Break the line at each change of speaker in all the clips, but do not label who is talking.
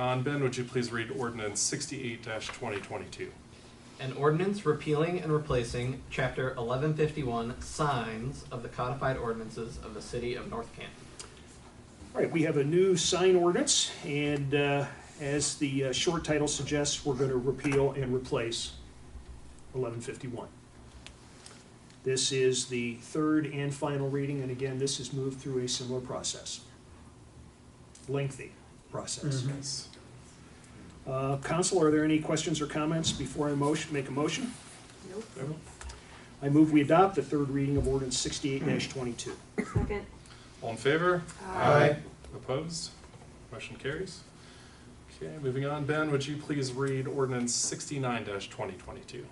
On, Ben, would you please read ordinance sixty-eight twenty twenty-two?
An ordinance repealing and replacing Chapter 1151 signs of the codified ordinances of the city of North Canton.
All right, we have a new sign ordinance, and uh, as the uh, short title suggests, we're going to repeal and replace 1151. This is the third and final reading, and again, this is moved through a similar process. Lengthy process.
Yes.
Uh, Council, are there any questions or comments before I motion, make a motion?
Nope.
I move we adopt the third reading of ordinance 68-22.
Second. Uh,
All in favor?
Aye.
Opposed? Motion carries. Okay, moving on, Ben, would you please read ordinance sixty-nine twenty twenty-two?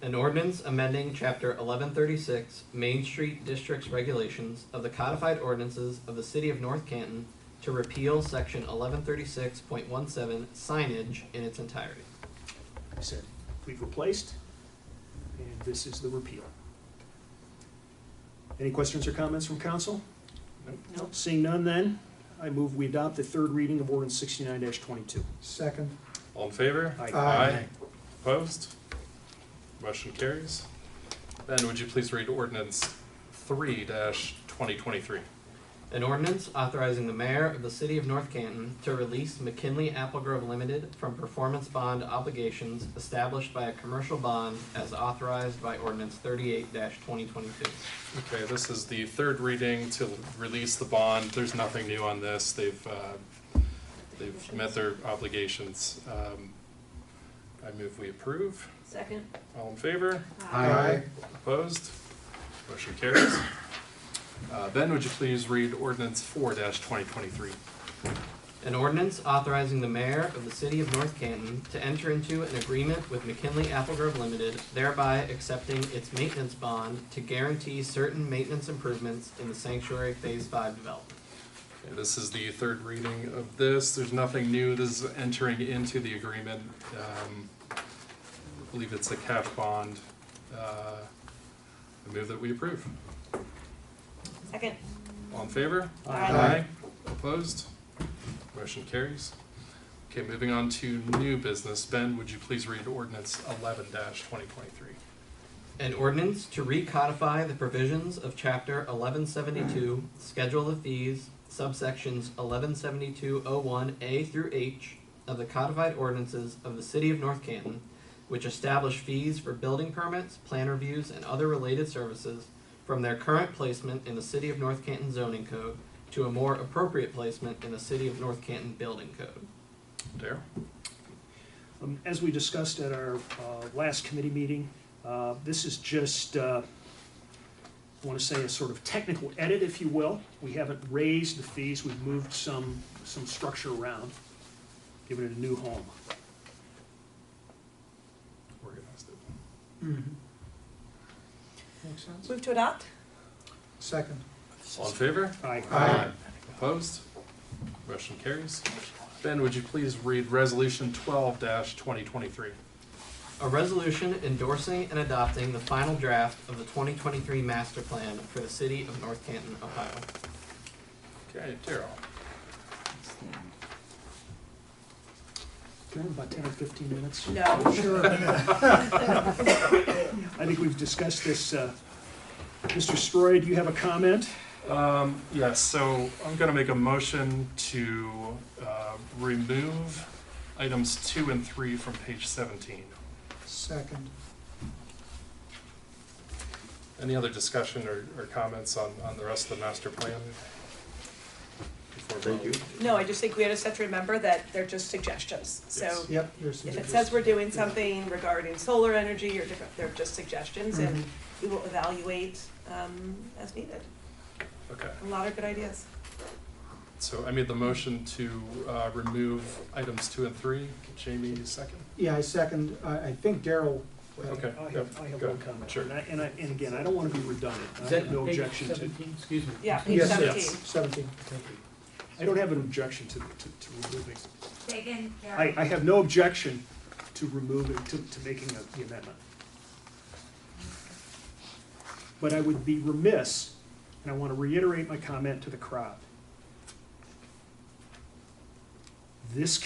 An ordinance amending Chapter 1136 Main Street District's regulations of the codified ordinances of the city of North Canton to repeal Section 1136.17 signage in its entirety.
I said, we've replaced, and this is the repeal. Any questions or comments from council?
Nope.
Nope.
Seeing none then, I move we adopt the third reading of ordinance sixty-nine twenty-two.
Second.
All in favor?
Aye.
Aye.
Opposed? Motion carries. Ben, would you please read ordinance three twenty twenty-three?
An ordinance authorizing the mayor of the city of North Canton to release McKinley Applegrove Limited from performance bond obligations established by a commercial bond as authorized by ordinance thirty-eight twenty twenty-two.
Okay, this is the third reading to release the bond. There's nothing new on this. They've, uh, they've met their obligations. Um, I move we approve.
Second. Uh,
All in favor?
Aye.
Opposed? Motion carries. Uh, Ben, would you please read ordinance four twenty twenty-three?
An ordinance authorizing the mayor of the city of North Canton to enter into an agreement with McKinley Applegrove Limited, thereby accepting its maintenance bond to guarantee certain maintenance improvements in the sanctuary phase five development.
Okay, This is the third reading of this. There's nothing new. This is entering into the agreement. Um, I believe it's a cash bond. Uh, I move that we approve.
Second.
All in favor?
Aye.
Opposed? Motion carries. Okay, moving on to new business. Ben, would you please read ordinance eleven twenty twenty-three?
An ordinance to recodify the provisions of Chapter 1172, Schedule of Fees, subsections 117201A through H of the codified ordinances of the City of North Canton, which establish fees for building permits, plan reviews, and other related services from their current placement in the City of North Canton zoning code to a more appropriate placement in the City of North Canton building code.
Darrell?
Um, As we discussed at our uh, last committee meeting, uh, this is just, uh, I want to say, a sort of technical edit, if you will. We haven't raised the fees, we've moved some, some structure around, given it a new home.
Organized it.
Makes sense.
Move to adopt?
Second.
All in favor?
Aye.
Aye.
Opposed? Motion carries. Ben, would you please read resolution twelve twenty twenty-three?
A resolution endorsing and adopting the final draft of the 2023 master plan for the city of North Canton, Ohio.
Okay, Darrell?
Can I have About ten or fifteen minutes.
No.
Sure.
I think we've discussed this. uh, Mr. Stroy, do you have a comment?
Um, yes, so I'm gonna make a motion to, uh, remove items two and three from page seventeen.
Second.
Any other discussion or, or comments on, on the rest of the master plan? Before
Thank you.
vote?
No, I just think we just have to remember that they're just suggestions. So
Yes.
Yep. there's
if it
suggestions.
says we're doing something regarding solar energy or different, they're just suggestions
Mm-hmm.
and we will evaluate um, as needed.
Okay,
A lot of good ideas.
so I made the motion to, uh, remove items two and three. Jamie, second?
Yeah, I second, I, I think Daryl. uh,
Okay.
I have, I have
Go.
one comment.
Sure.
And I, and I, and again, I don't want to be redundant. I have no objection to,
Excuse me.
Yeah, page
Yes,
seventeen.
yes.
Seventeen, thank you.
I don't have an objection to, to, to removing.
Second,
I,
Carol.
I have no objection to removing, to, to making a- the amendment. But I would be remiss, and I want to reiterate my comment to the crowd. This